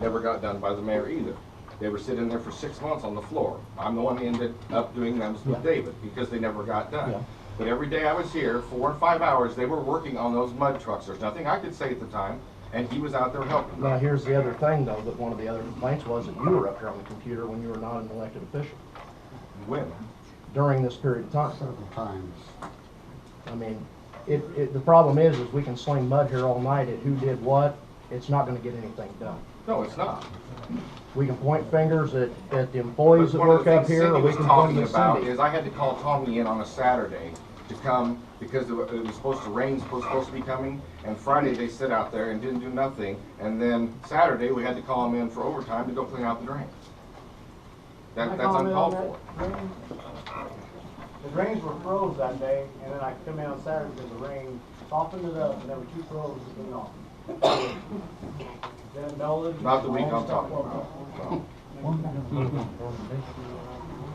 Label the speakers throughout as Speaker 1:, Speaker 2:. Speaker 1: never got done by the mayor either. They were sitting there for six months on the floor. I'm the one that ended up doing them
Speaker 2: Yeah.
Speaker 1: with David, because they never got
Speaker 2: Yeah.
Speaker 1: done. But every day I was here, four and five hours, they were working on those mud trucks. There's nothing I could say at the time, and he was out there helping.
Speaker 2: Now, here's the other thing, though, that one of the other complaints was that you were up here on the computer when you were not an elected official
Speaker 1: When?
Speaker 2: during this period of time.
Speaker 3: several times.
Speaker 2: I mean, it, it, the problem is, is we can sling mud here all night at who did what. It's not gonna get anything done.
Speaker 1: No, it's not.
Speaker 2: We can point fingers at, at the
Speaker 1: But
Speaker 2: employees that
Speaker 1: one of
Speaker 2: work
Speaker 1: the
Speaker 2: up
Speaker 1: things
Speaker 2: here,
Speaker 1: Cindy
Speaker 2: or we
Speaker 1: was
Speaker 2: can point
Speaker 1: talking
Speaker 2: at
Speaker 1: about is
Speaker 2: Cindy.
Speaker 1: I had to call Tommy in on a Saturday to come because it wa- it was supposed to rain, supposed, supposed to be coming. And Friday they sit out there and didn't do nothing. And then Saturday we had to call him in for overtime to go clean out the drain. That,
Speaker 4: Can I
Speaker 1: that's
Speaker 4: comment on
Speaker 1: uncalled for.
Speaker 4: that? Drains- The drains were froze that day, and then I come in on Saturday because the rain softened it up, and there were two froze that came off. Then Nolan.
Speaker 1: Not the week I'm talking about. No.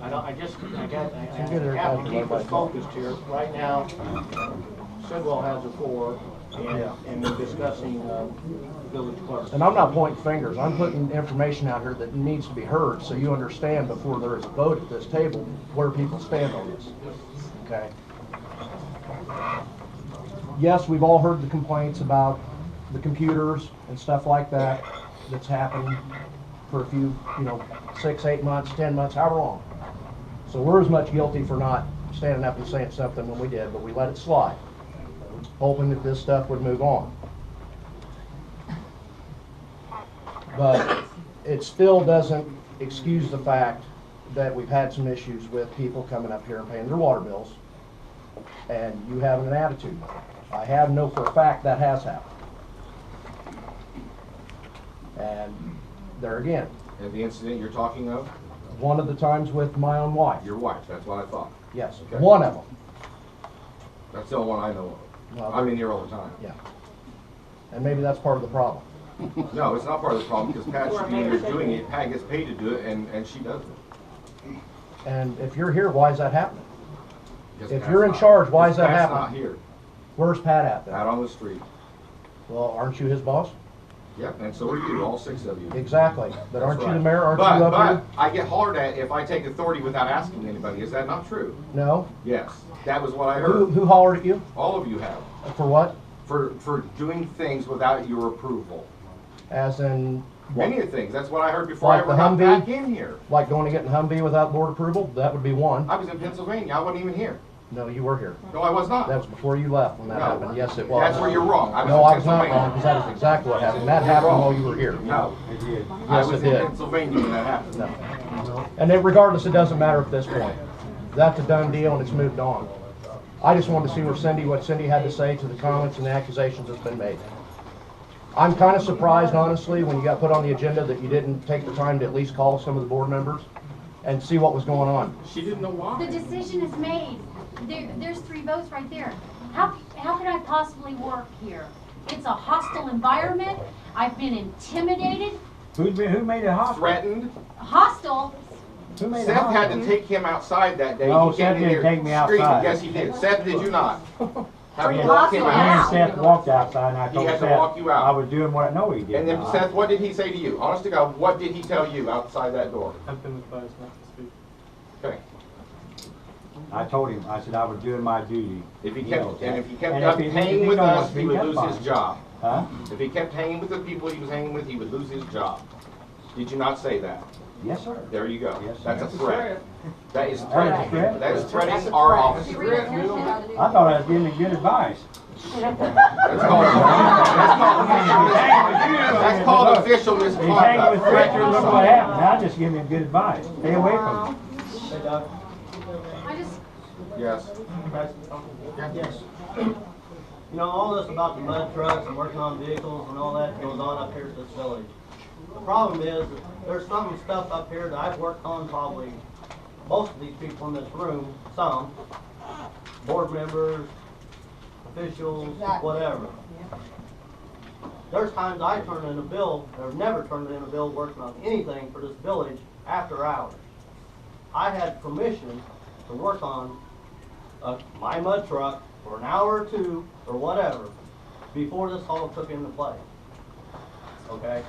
Speaker 5: I don't, I just, I got, I
Speaker 2: Can you get her
Speaker 5: have to
Speaker 2: back
Speaker 5: keep
Speaker 2: to
Speaker 5: us focused here. Right now, Sidwell has the floor,
Speaker 2: Yeah.
Speaker 5: and, and we're discussing, uh, village clerk.
Speaker 2: And I'm not pointing fingers, I'm putting information out here that needs to be heard, so you understand before there is a vote at this table, where people stand on this, okay? Yes, we've all heard the complaints about the computers and stuff like that, that's happened for a few, you know, six, eight months, ten months, however long. So we're as much guilty for not standing up and saying something when we did, but we let it slide, hoping that this stuff would move on. But it still doesn't excuse the fact that we've had some issues with people coming up here and paying their water bills, and you having an attitude. I have no for a fact that has happened. And there again,
Speaker 1: And the incident you're talking of,
Speaker 2: one of the times with my own wife,
Speaker 1: your wife, that's what I thought.
Speaker 2: yes,
Speaker 1: Okay.
Speaker 2: one of them,
Speaker 1: That's the only one I know
Speaker 2: Well-
Speaker 1: of. I'm in here all the time.
Speaker 2: yeah. And maybe that's part of the problem.
Speaker 1: No, it's not part of the problem because Pat should be in there doing it. Pat gets paid to do it and, and she doesn't.
Speaker 2: And if you're here, why is that happening?
Speaker 1: Because
Speaker 2: If
Speaker 1: Pat's
Speaker 2: you're in
Speaker 1: not-
Speaker 2: charge, why is
Speaker 1: because
Speaker 2: that
Speaker 1: Pat's
Speaker 2: happening?
Speaker 1: not here,
Speaker 2: Where's Pat at
Speaker 1: out
Speaker 2: then?
Speaker 1: on the street.
Speaker 2: Well, aren't you his boss?
Speaker 1: Yep, and so are you, all six of you.
Speaker 2: Exactly, but aren't
Speaker 1: That's
Speaker 2: you the
Speaker 1: right.
Speaker 2: mayor, aren't
Speaker 1: But-
Speaker 2: you up here?
Speaker 1: But I get hollered at if I take authority without asking anybody. Is that not true?
Speaker 2: No?
Speaker 1: Yes, that was what I
Speaker 2: Who,
Speaker 1: heard.
Speaker 2: who hollered at you?
Speaker 1: All of you have,
Speaker 2: For what?
Speaker 1: for, for doing things without your approval.
Speaker 2: As in, what?
Speaker 1: Many of things. That's what I heard before I
Speaker 2: Like the
Speaker 1: ever got
Speaker 2: Humvee?
Speaker 1: back in here.
Speaker 2: Like going to get in Humvee without board approval? That would be one.
Speaker 1: I was in Pennsylvania. I wasn't even here.
Speaker 2: No, you were here.
Speaker 1: No, I was not.
Speaker 2: That was before you left when that
Speaker 1: No.
Speaker 2: happened. Yes, it was.
Speaker 1: That's where you're wrong. I
Speaker 2: No,
Speaker 1: was
Speaker 2: I was
Speaker 1: in
Speaker 2: not wrong, because
Speaker 1: Pennsylvania.
Speaker 2: that was exactly what happened. That happened while you were here.
Speaker 1: No,
Speaker 3: I did.
Speaker 1: I
Speaker 2: Yes,
Speaker 1: was
Speaker 2: it
Speaker 1: in
Speaker 2: did.
Speaker 1: Pennsylvania when that happened.
Speaker 2: And then regardless, it doesn't matter at this point. That's a done deal and it's moved on. I just wanted to see where Cindy, what Cindy had to say to the comments and the accusations that's been made. I'm kind of surprised honestly, when you got put on the agenda that you didn't take the time to at least call some of the board members and see what was going on.
Speaker 1: She didn't know
Speaker 6: The
Speaker 1: why.
Speaker 6: decision is made. There, there's three votes right there. How, how could I possibly work here? It's a hostile environment. I've been intimidated,
Speaker 4: Who, who made it hot?
Speaker 1: Threatened.
Speaker 6: hostile.
Speaker 4: Who made
Speaker 1: Seth had to take him outside that day.
Speaker 4: No,
Speaker 2: Oh,
Speaker 1: He came
Speaker 4: Seth
Speaker 1: in
Speaker 4: didn't
Speaker 1: here
Speaker 4: take me
Speaker 1: screaming.
Speaker 4: outside.
Speaker 1: Yes, he did. Seth, did you not? Have
Speaker 6: Yeah.
Speaker 1: you walked him
Speaker 6: Me
Speaker 4: And
Speaker 1: out?
Speaker 6: Wow.
Speaker 4: Seth walked outside, and I
Speaker 1: He
Speaker 4: told
Speaker 1: had
Speaker 4: Seth.
Speaker 1: to walk you out.
Speaker 4: I was doing what, no, he did
Speaker 1: And then
Speaker 4: not.
Speaker 1: Seth, what did he say to you? Honest to God, what did he tell you outside that door?
Speaker 7: I've been advised not to speak.
Speaker 1: Okay.
Speaker 3: I told him, I said I was doing my duty.
Speaker 1: If he kept,
Speaker 3: knows that.
Speaker 1: and if he kept
Speaker 4: And
Speaker 1: up
Speaker 4: if he- if
Speaker 1: hanging
Speaker 4: he
Speaker 1: with
Speaker 4: don't want
Speaker 1: us,
Speaker 4: to
Speaker 1: he
Speaker 4: be
Speaker 1: would
Speaker 4: kept
Speaker 1: lose
Speaker 4: by
Speaker 1: his
Speaker 4: him.
Speaker 1: job.
Speaker 3: Huh?
Speaker 1: If he kept hanging with the people he was hanging with, he would lose his job. Did you not say that?
Speaker 3: Yes, sir.
Speaker 1: There you go.
Speaker 3: Yes, sir.
Speaker 1: That's a threat. That is
Speaker 4: That's a
Speaker 1: threatening.
Speaker 4: threat.
Speaker 1: That is threatening our office.
Speaker 3: I thought I was giving him good advice.
Speaker 1: That's called, that's called, that's called official
Speaker 3: He hanging
Speaker 1: misconduct.
Speaker 3: with Fletcher, look what
Speaker 1: Threat.
Speaker 3: happened. I just gave him good advice. Stay away from him.
Speaker 6: I just,
Speaker 1: Yes.
Speaker 8: Yes. You know, all this about the mud trucks and working on vehicles and all that goes on up here at this village. The problem is, there's some stuff up here that I've worked on probably, most of these people in this room, some, board members, officials, whatever. There's times I turn in a bill, or never turned in a bill working on anything for this village after hours. I had permission to work on uh, my mud truck for an hour or two or whatever before this all took into play. Okay?